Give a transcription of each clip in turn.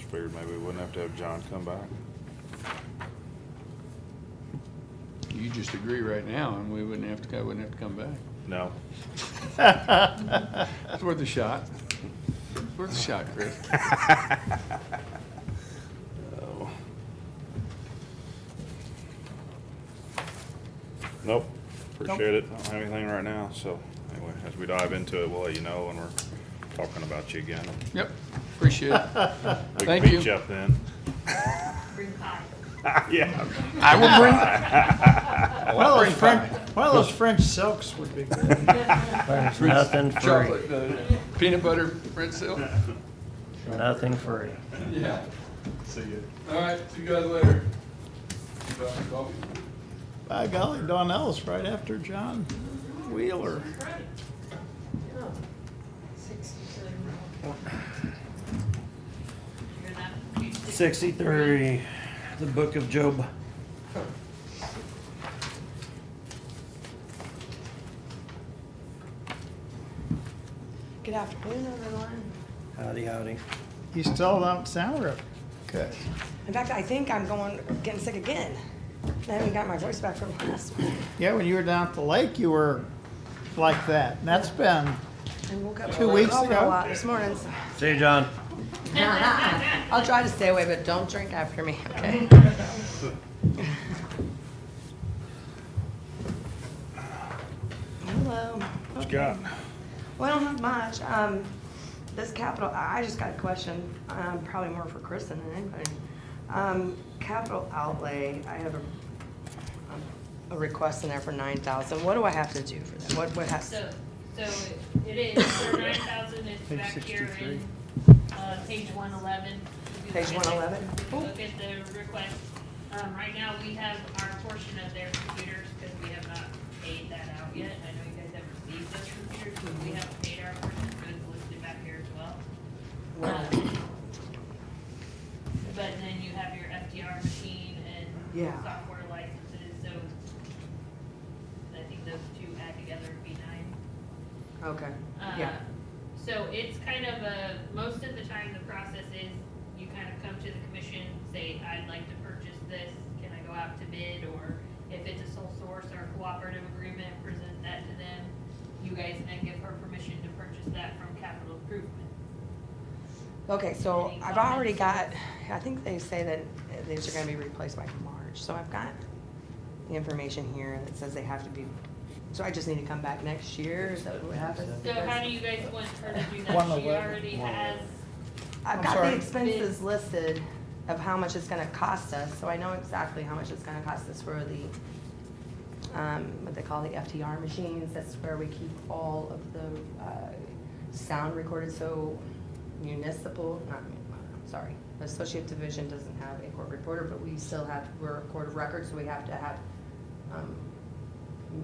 figured maybe we wouldn't have to have John come back. You just agree right now, and we wouldn't have to, I wouldn't have to come back. No. It's worth a shot. It's worth a shot, Chris. Oh. Nope, appreciate it. Don't have anything right now, so anyway, as we dive into it, we'll let you know when we're talking about you again. Yep, appreciate it. We can Thank beat you. you up then. Bring pie. Yeah. I will bring, One of those French, one of those French silks would be good. There's nothing free, chocolate, uh, peanut butter, red silk. nothing free. Yeah. All right, see you guys later. Coffee? By golly, Donnell's right after John Wheeler. You're not- you- Sixty-three, the book of Job. Good afternoon, everyone. Howdy, howdy. You still don't sound real good. In fact, I think I'm going, getting sick again. I haven't got my voice back from last week. Yeah, when you were down at the lake, you were like that. And that's been, I woke up. Two weeks Oh, no, ago? uh, This morning. so- See you, John. I'll try to stay away, but don't drink after me, okay? Hello. Scott, Well, I don't have much. Um, this capital, I I just got a question, um, probably more for Kristen than anybody. Um, capital outlay, I have a, um, a request in there for nine thousand. What do I have to do for that? What, what has, So, so it is, for nine thousand, it's Page back here 63. in, uh, page one eleven. Page 111? Look at the request, um, right now, we have our portion of their computers, because we have not paid that out yet, I know you guys have received those computers, but we haven't paid our portion, so it's listed back here as well. Um, But then you have your FDR machine and Yeah. software licenses, so I think those two add together would be nine. okay, Uh, yeah, So it's kind of a, most of the time the process is you kind of come to the commission, say, I'd like to purchase this, can I go out to bid? Or if it's a sole source or cooperative agreement, present that to them. You guys then give her permission to purchase that from capital improvement. okay, so Any I've already got, I think they say that these are gonna be replaced by March, so I've got the information here that says they have to be, so I just need to come back next year, is that what happens? So how do you guys want her to do One that? She eleven. already has I've I'm got sorry. the expenses listed of how much it's gonna cost us, so I know exactly how much it's gonna cost us for the, um, what they call the FTR machines, that's where we keep all of the, uh, sound recorded, so municipal, not, mun- I'm sorry, the associate division doesn't have a court reporter, but we still have, we're a court of record, so we have to have, um,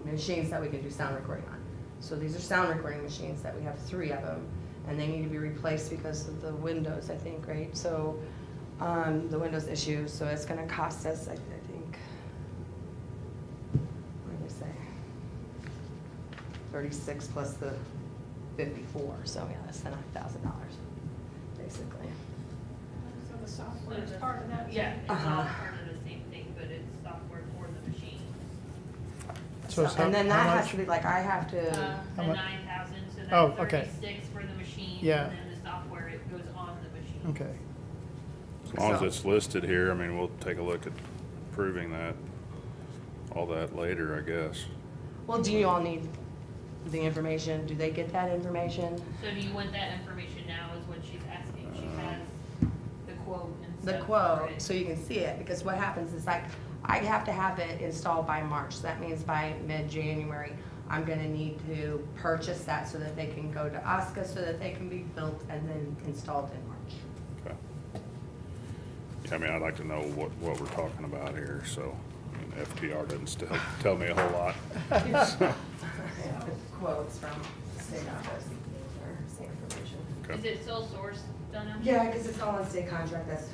machines that we can do sound recording on. So these are sound recording machines that we have three of them, and they need to be replaced because of the windows, I think, right? So, um, the windows issue, so it's gonna cost us, I, I think, what did I say? Thirty-six plus the fifty-four, so yeah, that's the nine thousand dollars, basically. So the software is part of that? Yeah, it's all Uh-huh. part of the same thing, but it's software for the machine. So it's how- And then how that has much? to be, like, I have Uh, to, How The mu- nine thousand, so Oh, that's okay. thirty-six for the machine, Yeah. and then the software, it goes on the machine. okay. as long as So- it's listed here, I mean, we'll take a look at proving that, all that later, I guess. well, do you all need the information? Do they get that information? So do you want that information now is what she's asking, she has the quote and the stuff for quote, it. so you can see it, because what happens is like, I have to have it installed by March, so that means by mid-January, I'm gonna need to purchase that so that they can go to Oscar, so that they can be built and then installed in March. Okay. Yeah, I mean, I'd like to know what, what we're talking about here, so, I mean, FTR doesn't still tell me a whole lot. Quotes from state office, or state information. Is it sole source, Donna? Yeah, because it's all on state contract, that's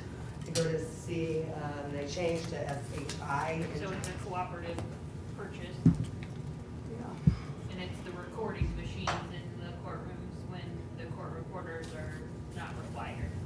to go to C, um, they changed to SHI. So it's a cooperative purchase, Yeah. and it's the recording machines in the courtrooms when the court reporters are not required.